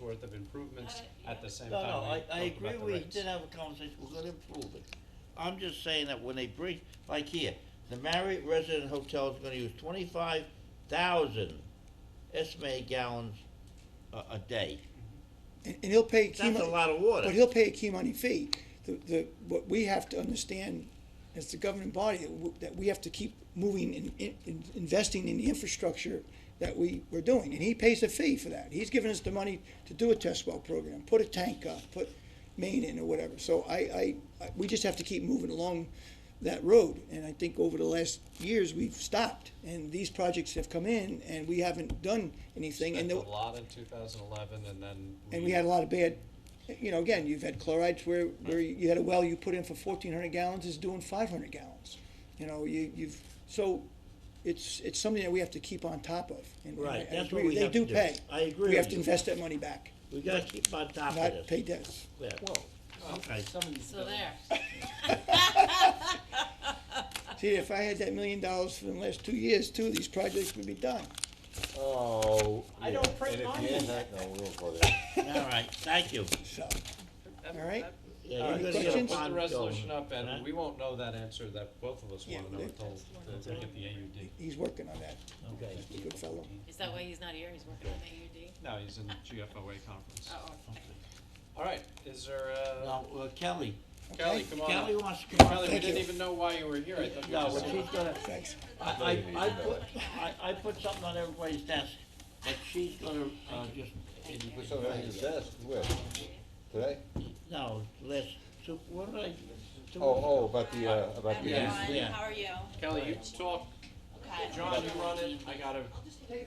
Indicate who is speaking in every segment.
Speaker 1: worth of improvements at the same
Speaker 2: No,
Speaker 1: time.
Speaker 2: no,
Speaker 1: we
Speaker 2: I, I
Speaker 1: talked about
Speaker 2: agree,
Speaker 1: the
Speaker 2: we
Speaker 1: rates.
Speaker 2: did have a conversation, we're gonna improve it. I'm just saying that when they bring, like here, the Marriott Resident Hotel is gonna use twenty-five thousand estimated gallons a, a day.
Speaker 3: And, and he'll pay a key.
Speaker 2: That's a
Speaker 3: mon-
Speaker 2: lot of water.
Speaker 3: But he'll pay a key money fee. The, the, what we have to understand as the governing body, that w- that we have to keep moving and, in- in investing in the infrastructure that we, we're doing. And he pays a fee for that. He's given us the money to do a test well program, put a tank up, put main in or whatever. So I, I, I, we just have to keep moving along that road. And I think over the last years, we've stopped. And these projects have come in and we haven't done anything. And
Speaker 1: Spent a
Speaker 3: the-
Speaker 1: lot in two thousand eleven and then.
Speaker 3: and we had a lot of bad, you know, again, you've had chlorides where, where you had a well you put in for fourteen hundred gallons is doing five hundred gallons. You know, you, you've, so it's, it's something that we have to keep on top of. and- and I-
Speaker 2: Right,
Speaker 3: I
Speaker 2: that's what
Speaker 3: agree.
Speaker 2: we have to do.
Speaker 3: They do pay.
Speaker 2: I agree
Speaker 3: We have
Speaker 2: with
Speaker 3: to
Speaker 2: you.
Speaker 3: invest that money back,
Speaker 2: We gotta keep on top
Speaker 3: not
Speaker 2: of
Speaker 3: pay
Speaker 2: this.
Speaker 3: debts.
Speaker 2: Yeah. Okay.
Speaker 4: So there.
Speaker 3: See, if I had that million dollars for the last two years, two of these projects would be done.
Speaker 5: Oh.
Speaker 4: I don't print
Speaker 5: If you
Speaker 4: money.
Speaker 5: end that, no, we'll go there.
Speaker 2: All right, thank you.
Speaker 3: So, all right,
Speaker 2: Yeah,
Speaker 1: All
Speaker 2: you're
Speaker 1: right, so
Speaker 2: gonna get a
Speaker 3: questions?
Speaker 1: put the
Speaker 2: bond
Speaker 1: resolution
Speaker 2: going,
Speaker 1: up and
Speaker 2: right?
Speaker 1: we won't know that answer that both of us
Speaker 3: Yeah,
Speaker 1: wanna know
Speaker 3: they-
Speaker 1: until the- we get the AUD.
Speaker 3: he's working on that.
Speaker 2: Okay.
Speaker 3: He's a good fellow.
Speaker 4: Is that why he's not here? He's working on AUD?
Speaker 1: No, he's in the GFOA conference.
Speaker 4: Oh, okay.
Speaker 1: All right, is there, uh,
Speaker 2: Now, uh, Kelly,
Speaker 1: Kelly, come on up.
Speaker 2: Kelly wants to come on.
Speaker 1: Kelly, we
Speaker 3: Thank
Speaker 1: didn't
Speaker 3: you.
Speaker 1: even know why you were here, I thought you
Speaker 2: No,
Speaker 1: were
Speaker 2: but
Speaker 1: just.
Speaker 2: she's gonna,
Speaker 3: Thanks.
Speaker 2: I, I, I put, I, I put something on everybody's desk, but she's gonna, uh, just,
Speaker 5: Put something on your desk, where? Today?
Speaker 2: no, less, so, what did I? two-
Speaker 5: Oh, oh, about the, uh, about the.
Speaker 1: Yeah.
Speaker 2: Yeah.
Speaker 6: Everyone, how are you?
Speaker 1: Kelly, you talk,
Speaker 6: Okay.
Speaker 1: John, you run it, I gotta,
Speaker 6: Okay.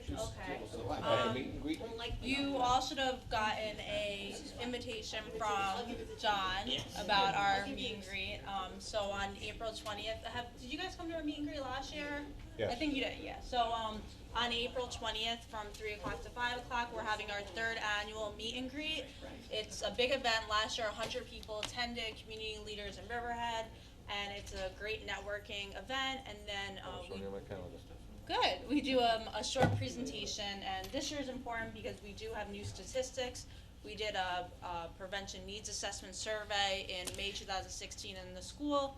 Speaker 5: About the meet and greet?
Speaker 6: You all should have gotten a invitation from John about our meet and greet. Um, so on April twentieth, have, did you guys come to our meet and greet last year? I
Speaker 5: Yes.
Speaker 6: think you did, yeah. So, um, on April twentieth, from three o'clock to five o'clock, we're having our third annual meet and greet. It's a big event. Last year, hundred people attended, community leaders in Riverhead, and it's a great networking event. And then, uh,
Speaker 5: It's
Speaker 6: we
Speaker 5: only on my calendar.
Speaker 6: Good. We do um, a short presentation, and this year's important because we do have new statistics. We did a, a prevention needs assessment survey in May 2016 in the school.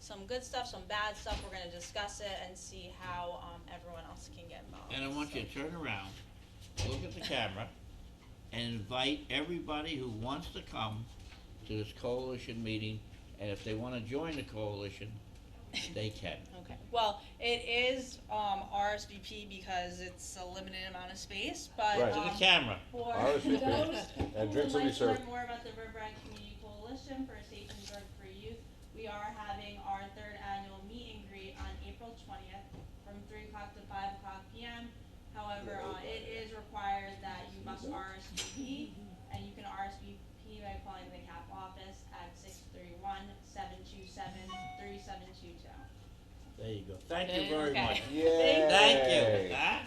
Speaker 6: Some good stuff, some bad stuff. We're going to discuss it and see how um, everyone else can get involved.
Speaker 2: And I want you to turn around, look at the camera, and invite everybody who wants to come to this coalition meeting, and if they wanna join the coalition, they can.
Speaker 6: Okay. Well, it is um, RSVP because it's a limited amount of space, but
Speaker 5: Right.
Speaker 2: To the
Speaker 6: um,
Speaker 2: camera,
Speaker 6: for
Speaker 5: RSVP.
Speaker 6: those
Speaker 5: And drinks will
Speaker 6: who would
Speaker 5: be
Speaker 6: like to learn
Speaker 5: served.
Speaker 6: more about the Riverhead Community Coalition for a Safe and Drug-Free Youth, we are having our third annual meet and greet on April twentieth from three o'clock to five o'clock P M. However, uh, it is required that you must RSVP, and you can RSVP by calling the CAP office at 631-727-3722.
Speaker 2: there you go, thank you very
Speaker 6: Okay.
Speaker 2: much.
Speaker 5: Yay.
Speaker 2: Thank you, huh?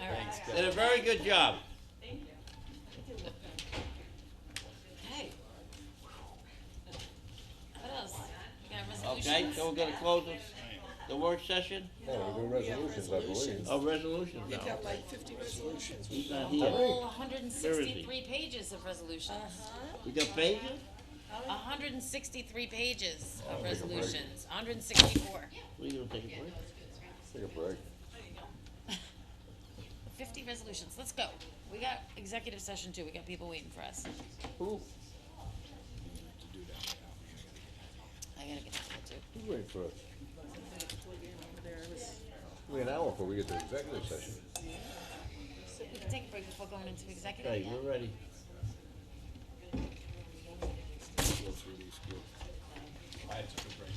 Speaker 4: All right.
Speaker 2: Did a very good job.
Speaker 6: Thank you.
Speaker 4: Hey. What else? You got
Speaker 2: Okay,
Speaker 4: resolutions?
Speaker 2: so we're gonna close the, the work session,
Speaker 5: Yeah, we do resolutions, I believe.
Speaker 2: oh, resolutions now.
Speaker 7: like fifty resolutions.
Speaker 2: He's not
Speaker 4: A
Speaker 2: here.
Speaker 4: whole hundred and sixty-three pages of resolutions.
Speaker 2: We got pages?
Speaker 4: hundred and sixty-three pages
Speaker 5: I'll
Speaker 4: of
Speaker 5: take Oh, a break.
Speaker 4: resolutions, hundred and sixty-four.
Speaker 2: We gonna take a break?
Speaker 5: Take a break.
Speaker 4: Fifty resolutions, let's go. We got executive session too, we got people waiting for us.
Speaker 5: Who,
Speaker 4: I gotta get that too.
Speaker 5: who's waiting for us? We're an hour before we get to executive session.
Speaker 4: We can take a break before going into executive.
Speaker 2: Okay,
Speaker 4: yeah?
Speaker 2: we're ready.
Speaker 1: I took a break.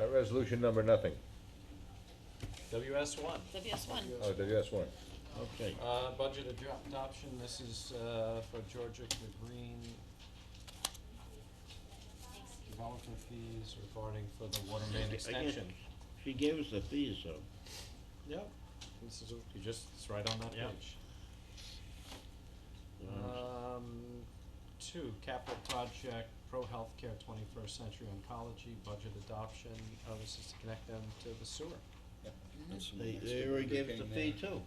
Speaker 5: Uh, resolution number nothing.
Speaker 1: WS one,
Speaker 4: WS one.
Speaker 5: Oh, WS one.
Speaker 2: Okay.
Speaker 1: uh, budget adop- adoption, this is, uh, for Georgia Green. Developer fees regarding for the water main extension.
Speaker 2: She gave us the fees, so.
Speaker 1: Yep, this is, you just, it's right on that
Speaker 2: Yeah.
Speaker 1: page. Um, two, capital project, pro healthcare, twenty-first century oncology, budget adoption, oh, this is to connect them to the sewer.
Speaker 2: They, they already gave us the fee too.